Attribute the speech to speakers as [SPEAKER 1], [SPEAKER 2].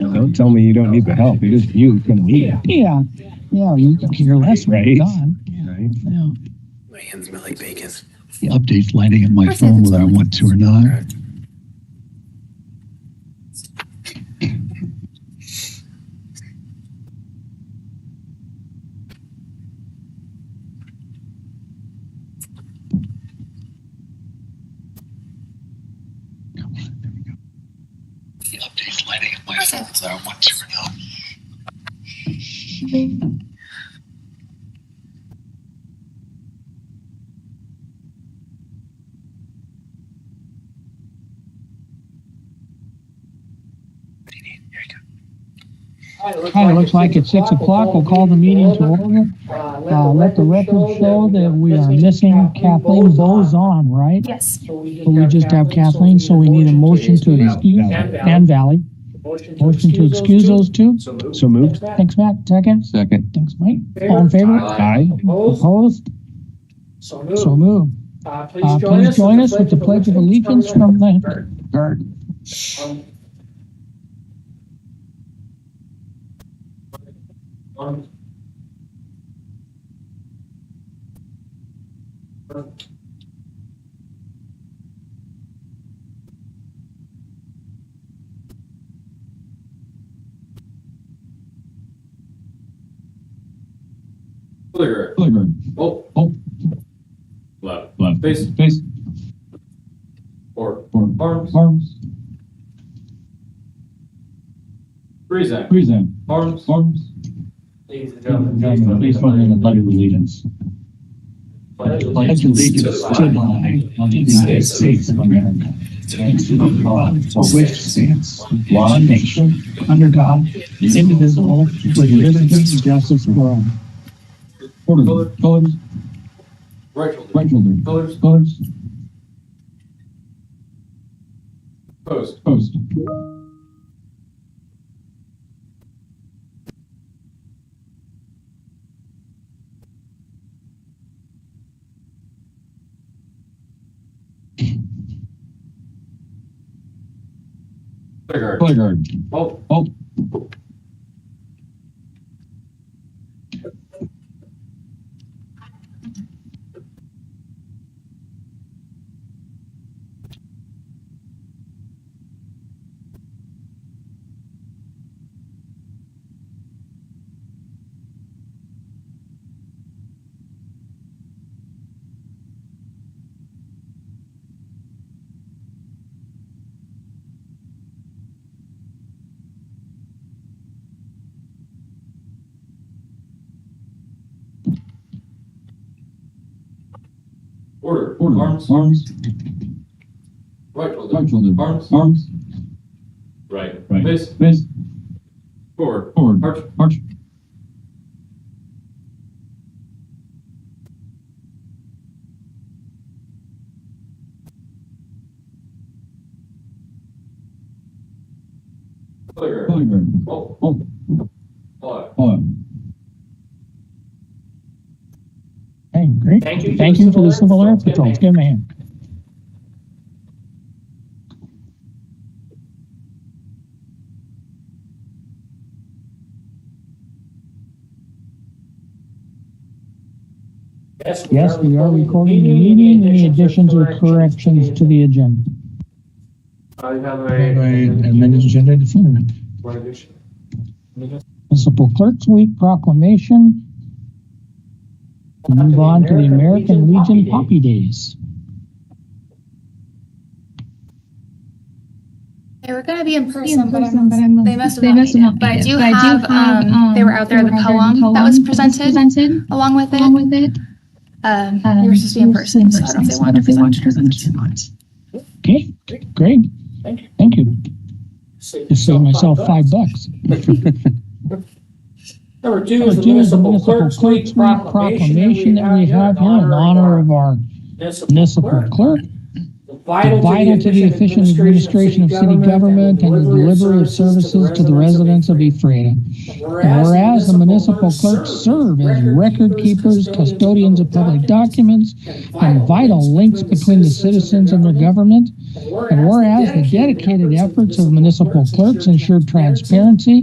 [SPEAKER 1] Don't tell me you don't need the help. It is you can lead,
[SPEAKER 2] Yeah, yeah, you can care less when
[SPEAKER 1] Right.
[SPEAKER 2] you're done. Yeah,
[SPEAKER 1] right?
[SPEAKER 2] yeah.
[SPEAKER 3] My hands smell like bacon.
[SPEAKER 2] The update's lighting up my
[SPEAKER 4] Of course, phone it's- whether I
[SPEAKER 2] want to or not. The update's lighting up my phone whether I want to or not.
[SPEAKER 5] All
[SPEAKER 2] Hi, it looks like it's six o'clock. We'll call the meeting to order. Uh, let the record show that we are missing Kathleen Bozon, right?
[SPEAKER 4] Yes.
[SPEAKER 2] But we just have Kathleen, so we need a motion to excuse and Valley. Motion to excuse those two.
[SPEAKER 1] So moved.
[SPEAKER 2] Thanks, Matt. Second.
[SPEAKER 1] Second.
[SPEAKER 2] Thanks, Mike. All in favor?
[SPEAKER 1] Aye.
[SPEAKER 5] Opposed?
[SPEAKER 2] Opposed?
[SPEAKER 5] So
[SPEAKER 2] Oh, So
[SPEAKER 5] moved.
[SPEAKER 2] moved.
[SPEAKER 5] Uh,
[SPEAKER 2] Uh, please join us with the Pledge of Allegiance from the garden. Um,
[SPEAKER 5] One. One.
[SPEAKER 6] Clear. Oh,
[SPEAKER 2] Oh,
[SPEAKER 6] left.
[SPEAKER 1] Left.
[SPEAKER 6] Face
[SPEAKER 2] face,
[SPEAKER 6] or
[SPEAKER 2] forward,
[SPEAKER 6] arms.
[SPEAKER 2] arms,
[SPEAKER 6] Present.
[SPEAKER 2] present,
[SPEAKER 6] Arms.
[SPEAKER 2] arms.
[SPEAKER 5] Ladies and gentlemen,
[SPEAKER 2] Please join in the Pledge of Allegiance. Pledge allegiance to the flag of the United States of America. and to the republic For which stands one nation, under God, indivisible, with liberty and justice for all. Order, colors,
[SPEAKER 6] Right shoulder.
[SPEAKER 2] right shoulder,
[SPEAKER 6] Colors.
[SPEAKER 2] colors,
[SPEAKER 6] Post.
[SPEAKER 2] post.
[SPEAKER 6] Clear.
[SPEAKER 2] Color guard.
[SPEAKER 6] Oh, order.
[SPEAKER 2] Order,
[SPEAKER 6] Arms.
[SPEAKER 2] arms,
[SPEAKER 6] Right shoulder.
[SPEAKER 2] right shoulder,
[SPEAKER 6] Arms.
[SPEAKER 2] arms,
[SPEAKER 6] Right.
[SPEAKER 1] Right.
[SPEAKER 6] Face
[SPEAKER 2] face,
[SPEAKER 6] forward.
[SPEAKER 2] forward,
[SPEAKER 6] Arch.
[SPEAKER 2] arch,
[SPEAKER 6] Clear.
[SPEAKER 2] color guard,
[SPEAKER 6] Oh,
[SPEAKER 2] oh,
[SPEAKER 6] left.
[SPEAKER 2] follow. Hey, great.
[SPEAKER 5] Thank you.
[SPEAKER 2] Thank you to the Civil Air Patrol. Give me a hand. Yes, we are recording the meeting. Any additions or corrections to the agenda?
[SPEAKER 5] I have a.
[SPEAKER 2] agenda definitive.
[SPEAKER 5] One addition.
[SPEAKER 2] Municipal Clerks Week proclamation. We'll Move on to the American Legion Poppy Days.
[SPEAKER 4] They were gonna be in
[SPEAKER 7] in
[SPEAKER 4] person, but
[SPEAKER 7] person, but
[SPEAKER 4] I'm,
[SPEAKER 7] I'm.
[SPEAKER 4] they must have not made it. But I do have, um, they were out there, the poem that was presented along with
[SPEAKER 7] Along
[SPEAKER 4] it.
[SPEAKER 7] with it.
[SPEAKER 4] Um, they were supposed to be in person, so I don't know if they wanted to present it or not.
[SPEAKER 2] Okay, great.
[SPEAKER 5] Thank you.
[SPEAKER 2] Thank you. Just saved myself five bucks.
[SPEAKER 5] Number two
[SPEAKER 2] Number
[SPEAKER 5] is the
[SPEAKER 2] two is the
[SPEAKER 5] municipal
[SPEAKER 2] Municipal
[SPEAKER 5] clerk's week
[SPEAKER 2] Clerks Week proclamation that we have here in honor of our
[SPEAKER 5] municipal
[SPEAKER 2] municipal
[SPEAKER 5] clerk.
[SPEAKER 2] clerk.
[SPEAKER 5] The vital to the efficient administration of city government and the delivery of services to the residents of
[SPEAKER 2] East Freda.
[SPEAKER 5] And
[SPEAKER 2] And whereas the municipal clerks serve as record keepers, custodians of public documents, and vital links between the citizens and their government, and whereas the dedicated efforts of municipal clerks ensure transparency